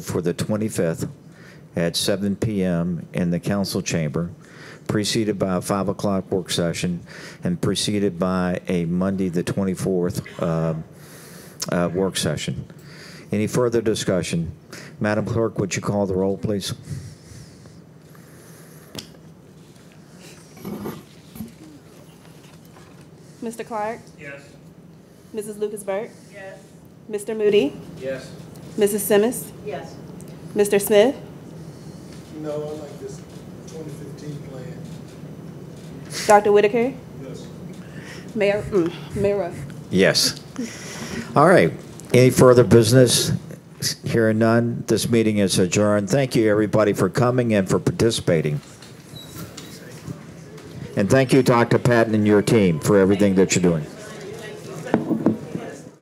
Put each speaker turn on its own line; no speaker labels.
for the 25th at 7 PM in the council chamber, preceded by a 5 o'clock work session, and preceded by a Monday, the 24th, uh, uh, work session. Any further discussion? Madam Clerk, would you call the roll, please?
Mr. Clark?
Yes.
Mrs. Lucas Burke?
Yes.
Mr. Moody?
Yes.
Mrs. Simmons?
Yes.
Mr. Smith?
No, I like this 2015 plan.
Dr. Whitaker?
Yes.
Mayor, mm, Mayor Ruff?
Yes. All right. Any further business? Hearing none, this meeting is adjourned. Thank you, everybody, for coming and for participating. And thank you, Dr. Patton and your team, for everything that you're doing.